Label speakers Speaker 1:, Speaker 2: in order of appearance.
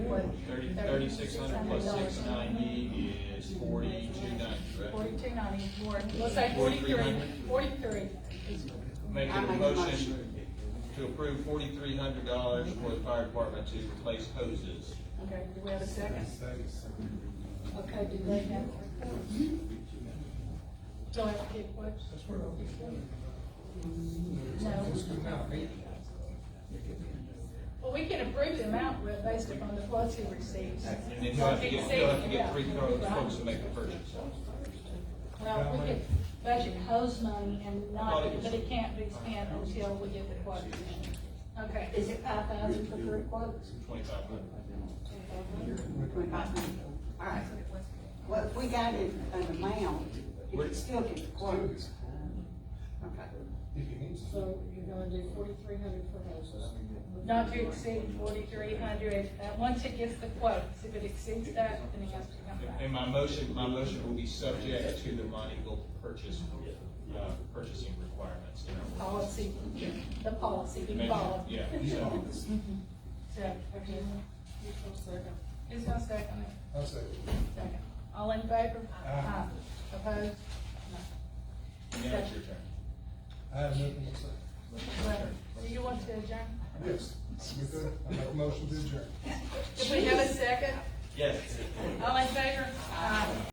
Speaker 1: would.
Speaker 2: Thirty, thirty-six hundred plus
Speaker 1: $3,600.
Speaker 2: six ninety is forty-two ninety, right?
Speaker 1: Forty-two ninety, or, let's say
Speaker 2: 43.
Speaker 1: forty-three, forty-three.
Speaker 2: Making
Speaker 3: I
Speaker 2: a
Speaker 3: make a
Speaker 2: motion to approve forty-three hundred dollars for the fire department to replace hoses.
Speaker 1: Okay, do we have a second? Okay, do they have a report? So I have to get what?
Speaker 4: That's where I'll be.
Speaker 1: Well, we can approve the amount re- based upon the quotes he receives.
Speaker 2: And then you'll have to get, you'll have to get three quotes, folks to make the purchase.
Speaker 1: Well, we could budget hose money and not, but it can't be spent until we get the quotes. Okay, is it five thousand for three quotes?
Speaker 2: Twenty-five hundred.
Speaker 3: Twenty-five hundred, all right. Well, if we got it an amount, you could still get the quotes. Okay.
Speaker 5: So you're gonna do forty-three hundred for houses.
Speaker 1: Not to exceed forty-three hundred, uh, once it gets the quotes, if it exceeds that, then it has to come back.
Speaker 2: And my motion, my motion will be subject to the Montego purchase, uh, purchasing requirements. in our ordinance.
Speaker 1: Policy, the policy, we
Speaker 2: Make-
Speaker 1: follow.
Speaker 2: Yeah, so,
Speaker 1: So, okay. Who's gonna second it?
Speaker 4: I'll say.
Speaker 1: Second. All in favor? Aye. Opposed?
Speaker 2: now it's your turn.
Speaker 4: I have nothing to say.
Speaker 1: No. Do you want to adjourn?
Speaker 4: Yes, we good. I make a motion to adjourn.
Speaker 1: If we have a second,
Speaker 2: Yes.
Speaker 1: all in favor? Aye.